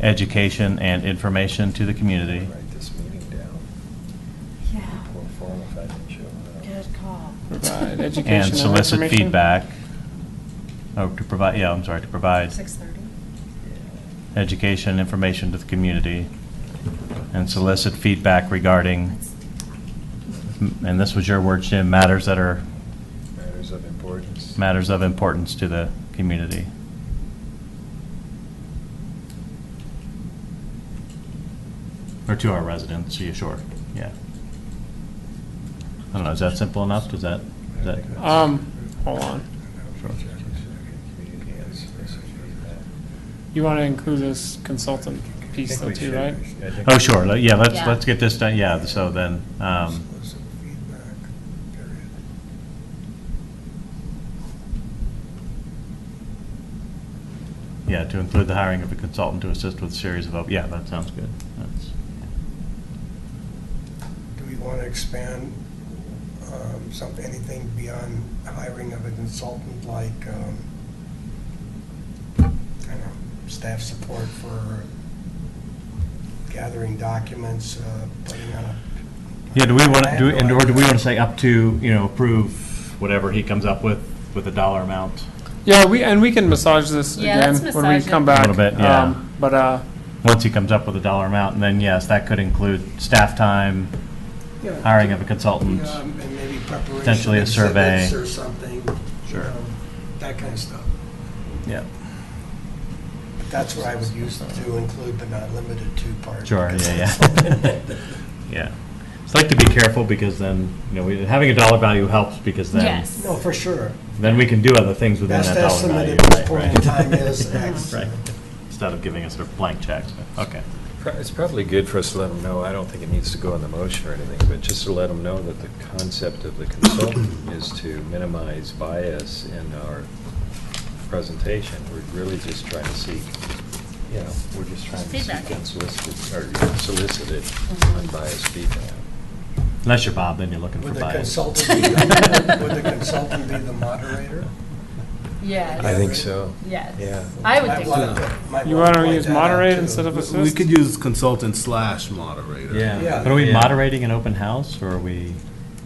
education, and information to the community. Write this meeting down. Yeah, Poor form if I didn't show good up. call. Provide education And solicit information. feedback, or to provide, yeah, I'm sorry, to provide Six thirty? education and information to the community, and solicit feedback regarding, and this was your word, Jim, matters that are, Matters of importance. matters of importance to the community. Or to our residents, yeah, sure, yeah. I don't know, is that simple enough? Does that, is that? Um, hold on. You want to include this consultant piece though too, right? Oh, sure, Let- yeah, let's, Yeah. let's get this done, yeah, so then, um, yeah, to include the hiring of a consultant to assist with series of, op- yeah, that sounds good. That's- Do we want to expand um, some, anything beyond hiring of a consultant, like, um, I don't know, staff support for gathering documents, uh, putting on a... Yeah, do we want to, do, and or do we want to say up to, you know, approve whatever he comes up with, with a dollar amount? Yeah, we, and we can massage this Yeah, let's again when we massage come it. back. Little bit, yeah. Um, But, uh, Once he comes up with a dollar amount, and then yes, that could include staff time, Yeah. hiring of a consultant. Um, And maybe preparation. Potentially a survey. exhibits Or something. you Sure. know, That kind of stuff. Yeah. That's what I would use to include, but not limited to part. Sure, yeah, yeah. Yeah. It's like to be careful because then, you know, we- having a dollar value helps because then, Yes. No, for sure. then we can do other things within Best that dollar estimate value. at this right, point in right. time is X. Right. Instead of giving us sort of blank checks, okay. Pro- It's probably good for us to let them know, I don't think it needs to go in the motion or anything, but just to let them know that the concept of the consultant is to minimize bias in our presentation. We're really just trying to seek, you know, we're just trying to Feedback. seek unsolicited, or solicited Mhm. unbiased feedback. Unless you're Bob, then you're looking for Would the bias. consultant, be the- would the consultant be the moderator? Yes. I think so. Yes. Yeah. I would Might think wanna- so. might You wanna wanna point use that out, moderator too. instead of assist? We could use consultant slash moderator. Yeah. But are we moderating an open house, or are we?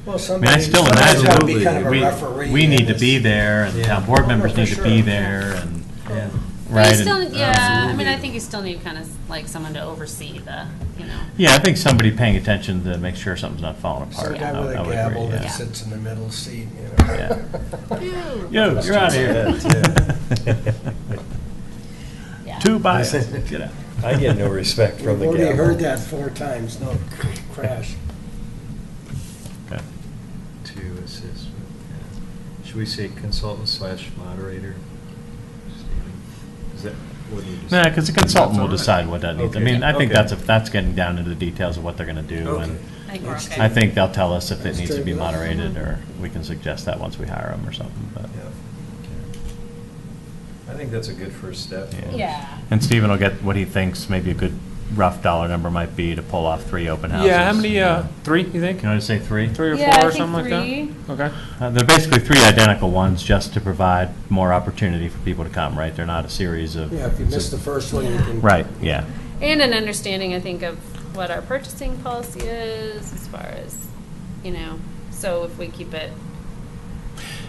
Well, I mean, I somebody, still somebody's gotta be imagine kind of a imagine, referee. we, we in need to this. be there, and Yeah. town board members Oh, need for to be sure. there, and, Yeah. right? But you and- still, yeah, I mean, I Absolutely. think you still need kind of like someone to oversee the, you know. Yeah, I think somebody paying attention to make sure something's not falling Some apart. guy I- with I would a agree, gavel that yeah. sits in the middle seat, you know. Yeah. Ew. Yo, you're out of here. Yeah. Two buys, get out. I get no respect from We've the gavel. already heard that four times, no, crash. Okay. To assist with, yeah. Should we say consultant slash moderator? Is that, what do you just? Nah, because the consultant will That's all right. decide what that needs. I Okay. mean, I think Okay. that's, a- that's getting down into the details of what they're going to do, Okay. and I think we're It's okay. I think they'll tell us if it Let's needs to take be it off. moderated, or we can suggest that once we hire them or something, but. Yeah. I think that's a good first step. Yeah. Yeah. And Stephen will get what he thinks maybe a good rough dollar number might be to pull off three open houses. yeah, how many, uh, three, you think? Can I just say three? Three or Yeah, I four or think something like that? three. Okay. Uh, They're basically three identical ones, just to provide more opportunity for people to come, right? They're not a series of. Yeah, if you miss the first one, you can. Right, yeah. And an understanding, I think, of what our purchasing policy is as far as, you know, so if we keep it.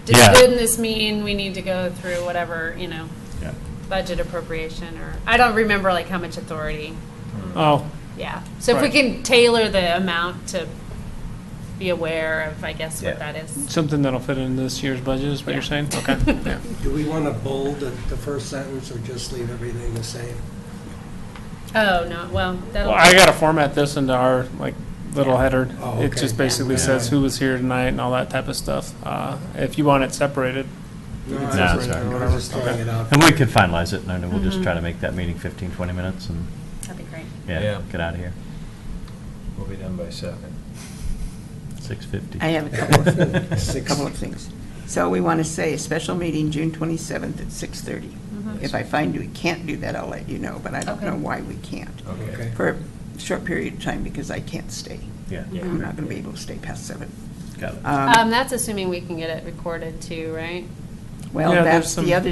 Yeah. Didn't this mean we need to go through whatever, you know, Yeah. budget appropriation or, I don't remember like how much authority, Oh, yeah. So if we Right. can tailor the amount to be aware of, I guess, what Yeah. that is. something that'll fit in this year's budget is what you're Yeah. saying? Okay. Yeah. Do we want to bold the the first sentence or just leave everything the same? Oh, no, well, that'll. Well, I gotta format this into our, like, little header. Oh, It okay. just basically Yeah. says who was here tonight and all that type of stuff. Uh, if you want it separated, No, can I'm separate just- it or I'm whatever. just throwing it out. And we could finalize it, and then we'll Mm-hmm. just Mhm. try to make that meeting 15, 20 minutes, and, That'd be great. yeah, Yeah. get out of here. We'll be done by seven. 6:50. I have a couple of, a Six. couple of things. So we want to say a special meeting, June 27th at 6:30. If I find we can't do that, I'll let you know, but I don't Okay. know why we can't. Okay. Okay. For a short period of time, because I can't stay. Yeah, Yeah. I'm not going to be able to stay past seven. got it. Um, Um, that's assuming we can get it recorded too, right? Well, Yeah, there's that's some- the other